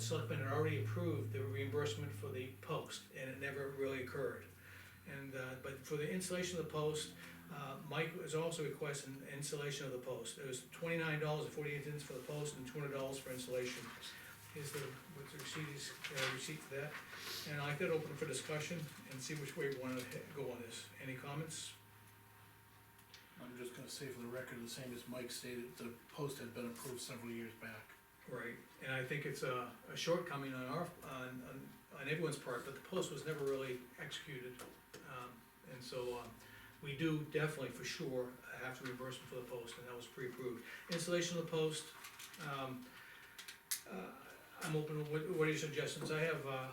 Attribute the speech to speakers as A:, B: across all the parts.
A: selectmen had already approved the reimbursement for the post, and it never really occurred. And, uh, but for the installation of the post, uh, Mike is also requesting installation of the post, it was twenty-nine dollars and forty-eight cents for the post and two hundred dollars for installation. Is the, what's the receipt, is, uh, receipt for that, and I could open for discussion and see which way we wanna he- go on this, any comments?
B: I'm just gonna say for the record, the same as Mike stated, the post had been approved several years back.
A: Right, and I think it's a, a shortcoming on our, on, on, on everyone's part, but the post was never really executed. Um, and so, um, we do definitely for sure have to reimburse them for the post, and that was pre-approved. Installation of the post, um, uh, I'm open, what, what are your suggestions? I have, uh,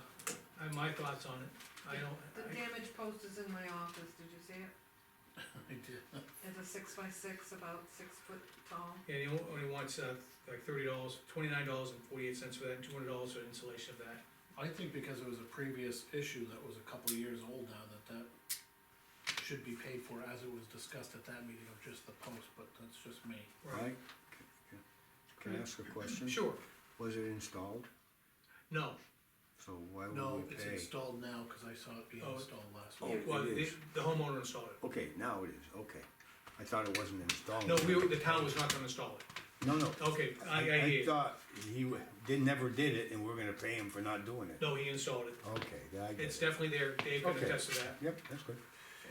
A: I have my thoughts on it. I
C: The
A: don't, I,
C: damaged post is in my office, did you see it?
B: I did.
C: It's a six by six, about six foot tall.
A: and he on- only wants, uh, like thirty dollars, twenty-nine dollars and forty-eight cents for that, and two hundred dollars for installation of that.
B: I think because it was a previous issue that was a couple of years old now, that that should be paid for as it was discussed at that meeting of just the post, but that's just me.
D: Mike, c- c- can I ask a question?
A: Sure,
D: Was it installed?
A: no,
D: So why
B: No,
D: would we
B: it's
D: pay?
B: installed now, cause I saw it being
A: Oh.
B: installed last
D: Oh,
A: Yeah,
B: week.
A: well,
D: it
A: the,
D: is.
A: the homeowner installed it.
D: Okay, now it is, okay. I thought it wasn't installed.
A: No, we, were- the town was not gonna install it.
D: No, no.
A: Okay, I, I
D: I
A: hear you.
D: thought he w- did, never did it and we're gonna pay him for not doing it.
A: No, he installed it.
D: Okay, then I
A: It's
D: get it.
A: definitely there. Dave can
D: Okay.
A: attest to that.
D: Yep, that's good.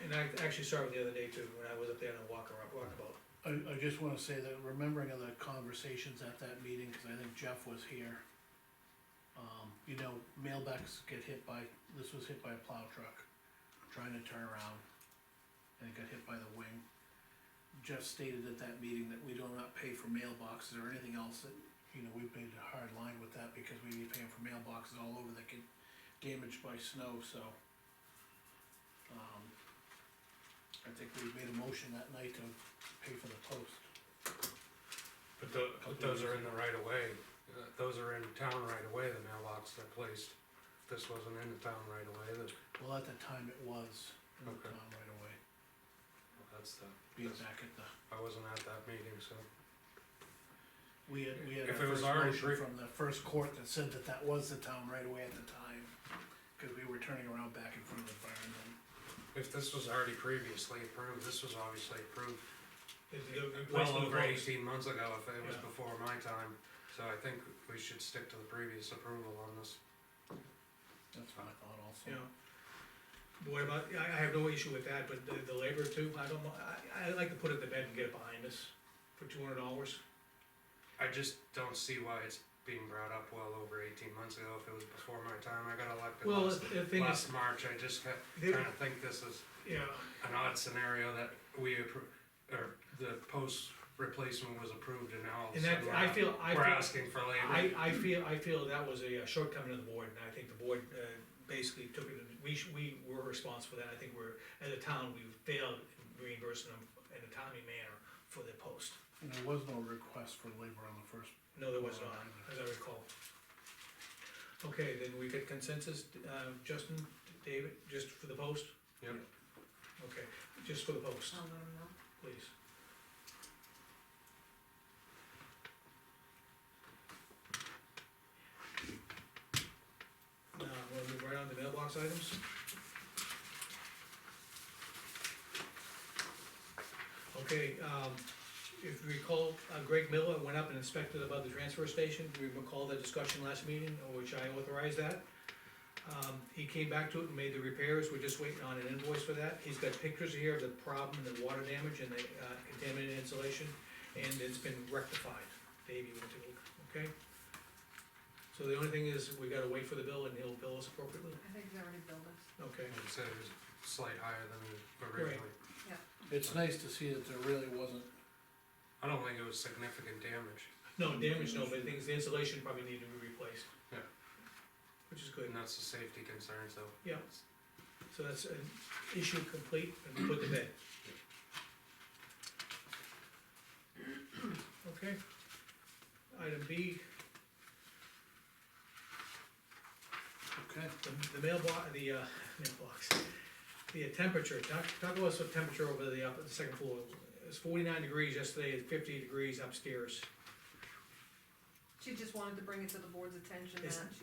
A: And I actually saw it the other day too, when I was up there on a walk around, walkabout.
B: I, I just wanna say that remembering of the conversations at that meeting, cause I think Jeff was here. Um, you know, mailbacks get hit by, this was hit by a plow truck, trying to turn around, and it got hit by the wing. Jeff stated at that meeting that we do not pay for mailboxes or anything else that, you know, we made a hard line with that because we be paying for mailboxes all over that get damaged by snow, so. Um, I think we made a motion that night to pay for the post.
E: But tho- but those are in the right of way, Uh, those are in town right away. the mailbox are placed. If This wasn't in the town right away. way, then-
B: Well, at the time it was, in the
E: Okay.
B: town right away,
E: well, that's the,
B: being
E: that's-
B: back at the,
E: I wasn't at that meeting, so.
B: we had, we had
E: If
B: our
E: it was
B: first
E: already
B: motion
E: pre-
B: from the first court that said that that was the town right away at the time. Cause we were turning around back in front of the fire and then
E: If this was already previously approved, this was obviously approved
A: The- the- the
E: well
A: replacement
E: over
A: of the-
E: eighteen months ago, if it was
A: Yeah.
E: before my time. So I think we should stick to the previous approval on this.
B: that's what I thought also.
A: Yeah. Boy, about, I, I have no issue with that, but the, the labor too, I don't, know. I, I like to put it to bed and get it behind us for two hundred dollars.
E: I just don't see why it's being brought up well over eighteen months ago, if it was before my time, I got elected
A: Well,
E: last,
A: the thing is,
E: last March, I just kept
A: There-
E: trying to think this is
A: yeah,
E: an odd scenario that we appro- or the post replacement was approved and now all of a
A: and that,
E: sudden we're
A: I
E: out-
A: feel, I
E: We're
A: feel,
E: asking for
A: I,
E: labor.
A: I feel, I feel that was a uh, shortcoming of the board, and I think the board, uh, basically took it, and we, sh- we were responsible for that, I think we're, as a town, we failed in reimbursing them in a timely manner for the post.
B: And there was no request for labor on the first,
A: No, there was not, as I recall. Okay, then we get consensus, uh, Justin, David, just for the post,
E: Yep,
A: okay, just for the post,
C: I'll let 'em know.
A: please. Now, we'll move right on to mailbox items. Okay, um, if you recall, uh, Greg Miller went up and inspected above the transfer station, we recall the discussion last meeting, which I authorized that. Um, he came back to it and made the repairs, we're just waiting on an invoice for that, he's got pictures here of the problem, the water damage and the uh, contaminated insulation, and it's been rectified, Dave, you want to take a look, okay? So the only thing is, we gotta wait for the bill and he'll bill us appropriately,
C: I think they already billed us.
A: okay?
E: I'd say it was slight higher than originally.
B: it's nice to see that there really wasn't,
E: I don't think it was significant damage,
A: No, damage, no, but the things, the insulation probably needed to be replaced.
E: Yeah.
A: Which is good.
E: and that's the safety concern, so.
A: Yeah. So that's an issue complete and put to bed. Okay. Item B,
B: okay,
A: the the mailbox, the, uh, mailbox, the uh, temperature, talk, talk about some temperature over the, up, the second floor. It was forty-nine degrees yesterday, it's fifty degrees upstairs.
C: She just wanted to bring it to the board's attention that
A: It's-
C: she